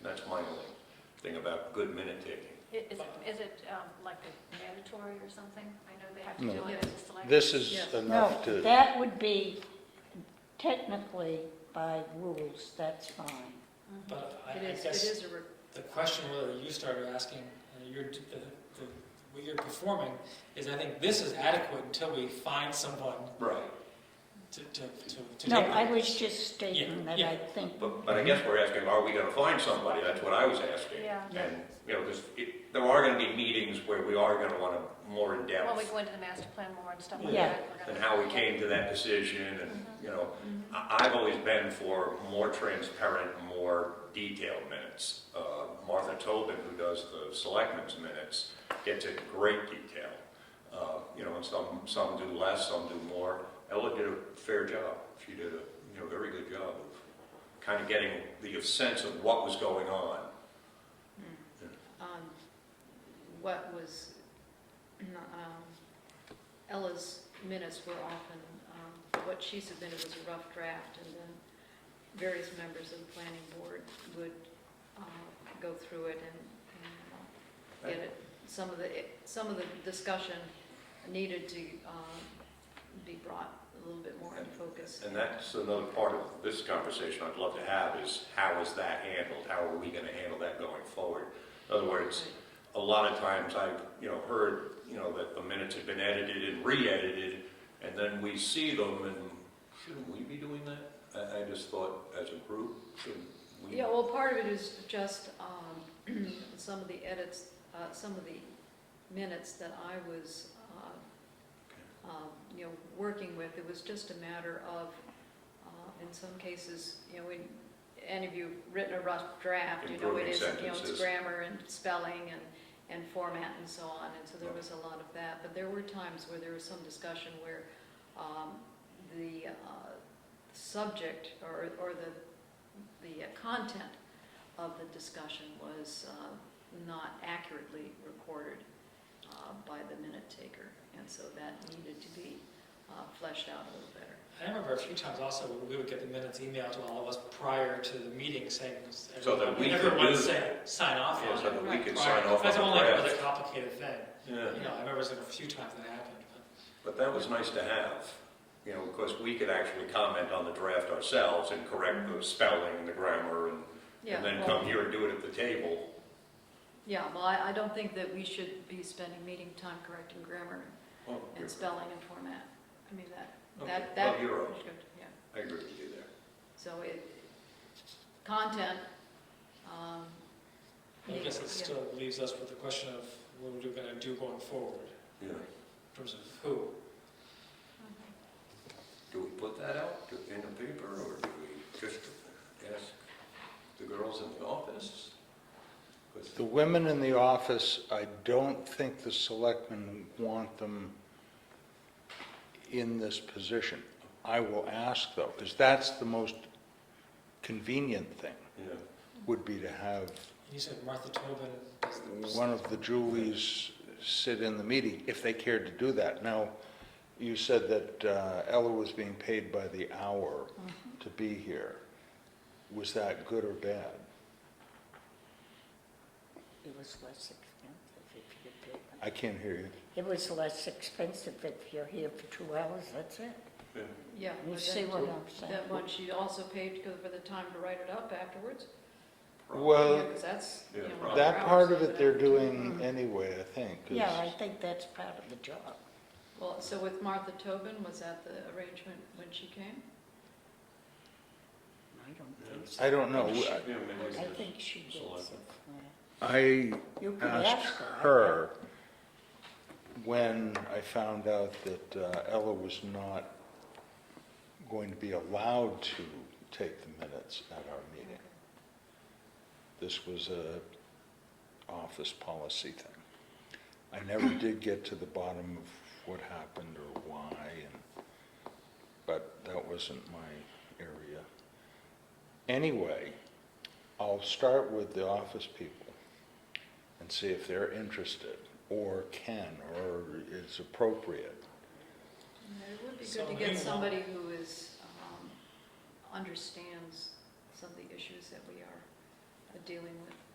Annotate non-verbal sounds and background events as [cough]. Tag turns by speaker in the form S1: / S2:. S1: thing about good minute taking.
S2: I- Is it, is it um, like a mandatory or something? I know they have to
S3: No.
S2: do it as a select.
S4: This is
S5: Yes.
S4: enough
S3: No,
S4: to,
S3: that would be technically by rules, that's fine.
S6: But I
S5: It
S6: I
S5: is, it
S6: guess
S5: is a, re-
S6: the question whether you started asking, uh, you're, the, the, what you're performing is I think this is adequate until we find someone
S1: Right.
S6: to, to, to to
S3: No,
S6: take it.
S3: I was just stating that I
S6: yeah.
S3: think,
S1: But, but I guess we're asking, are we gonna find somebody? That's what I was asking.
S2: Yeah.
S1: And, you know, because there are gonna be meetings where we are gonna wanna more in
S2: When we
S1: depth
S2: go into the master plan more and stuff like
S3: Yeah.
S2: that. we're
S1: and
S2: gonna-
S1: how we came to that decision and, you know, I, I've always been for more transparent, more detailed minutes. Uh, Martha Tobin, who does the selectmen's minutes, gets in great detail. Uh, you know, and some, some do less, some do more. Ella did a fair job. She did a, you know, very good job of kind of getting the sense of what was going on.
S5: um, what was, um, Ella's minutes were often, um, what she submitted was a rough draft, and then various members of the planning board would uh, go through it and- and uh, get it. Some of the, some of the discussion needed to um, be brought a little bit more in focus.
S1: And that's another part of this conversation I'd love to have is how is that handled? How are we gonna handle that going forward? In other words, a lot of times I've, you know, heard, you know, that the minutes have been edited and re-edited, and then we see them and shouldn't we be doing that? I, I just thought as a group, shouldn't we?
S5: Yeah, well, part of it is just um, [clears throat] some of the edits, uh, some of the minutes that I was, uh, um, you know, working with. It was just a matter of, uh, in some cases, you know, when any of you written a rough draft, you know,
S1: Improving
S5: it is, you know, it's
S1: sentences.
S5: grammar and spelling and, and format and so on. And so there was a lot of that. But there were times where there was some discussion where um, the uh, subject or, or the the uh, content of the discussion was uh, not accurately recorded uh, by the minute taker, and so that needed to be uh, fleshed out a little better.
S6: I remember a few times also, we would get the minutes emailed to all of us prior to the meeting saying,
S1: So that we could
S6: everyone
S1: do-
S6: say, sign off
S1: Yeah,
S6: on
S1: so
S6: it.
S1: that we could
S6: prior."
S1: sign off
S6: That's
S1: on
S6: only
S1: the
S6: another
S1: draft.
S6: complicated thing.
S1: Yeah.
S6: You know, I remember there's been a few times that happened,
S1: But
S6: but
S1: that was nice to have, you know, because we could actually comment on the draft ourselves and correct the spelling and the grammar and,
S5: Yeah,
S1: and then
S5: well,
S1: come here and do it at the table.
S5: Yeah, well, I I don't think that we should be spending meeting time correcting grammar
S1: Well,
S5: and spelling and format. I mean, that,
S1: Okay,
S5: that, that.
S1: well, you're right.
S5: Yeah,
S1: I agree with you there.
S5: so it, content. um,
S6: I guess it
S5: needs- yeah.
S6: still leaves us with the question of what we're gonna do going forward,
S1: Yeah.
S6: in terms of who.
S1: Do we put that out to- in the paper, or do we just ask the girls in the office? 'Cause-
S4: the women in the office, I don't think the selectmen want them in this position. I will ask though, because that's the most convenient thing,
S1: Yeah,
S4: would be to have
S6: You said Martha Tobin does the.
S4: one of the Julies sit in the meeting, if they cared to do that. Now, you said that uh, Ella was being paid by the hour
S3: Mm-hmm.
S4: to be here. Was that good or bad?
S3: it was less expensive if you did.
S4: I can't hear you.
S3: It was less expensive if you're here for two hours, that's it.
S1: yeah.
S5: Yeah.
S3: You
S5: but
S3: see
S5: then-
S3: what I'm saying?
S5: That one, she also paid to go for the time to write it up afterwards.
S4: Well,
S5: Because that's, you
S1: Yeah,
S5: know,
S1: probably.
S4: that
S5: four
S4: part
S5: hours,
S4: of
S5: but
S4: it they're
S5: I-
S4: doing anyway, I think. 'cause-
S3: Yeah, I think that's part of the job.
S5: Well, so with Martha Tobin, was that the arrangement when she came?
S3: I don't think so.
S4: I don't know. I-
S1: Yeah, maybe it's
S3: I
S1: just-
S3: think she gets it.
S4: I
S3: You could
S4: asked
S3: ask her.
S4: her when I found out that uh, Ella was not going to be allowed to take the minutes at our meeting. This was a office policy thing. I never
S3: [clears throat]
S4: did get to the bottom of what happened or why, and, but that wasn't my area. Anyway, I'll start with the office people and see if they're interested or can or is appropriate.
S5: Yeah, Mm, It would be
S6: So
S5: good to
S6: meanwhile-
S5: get somebody who is, um, understands some of the issues that we are dealing with.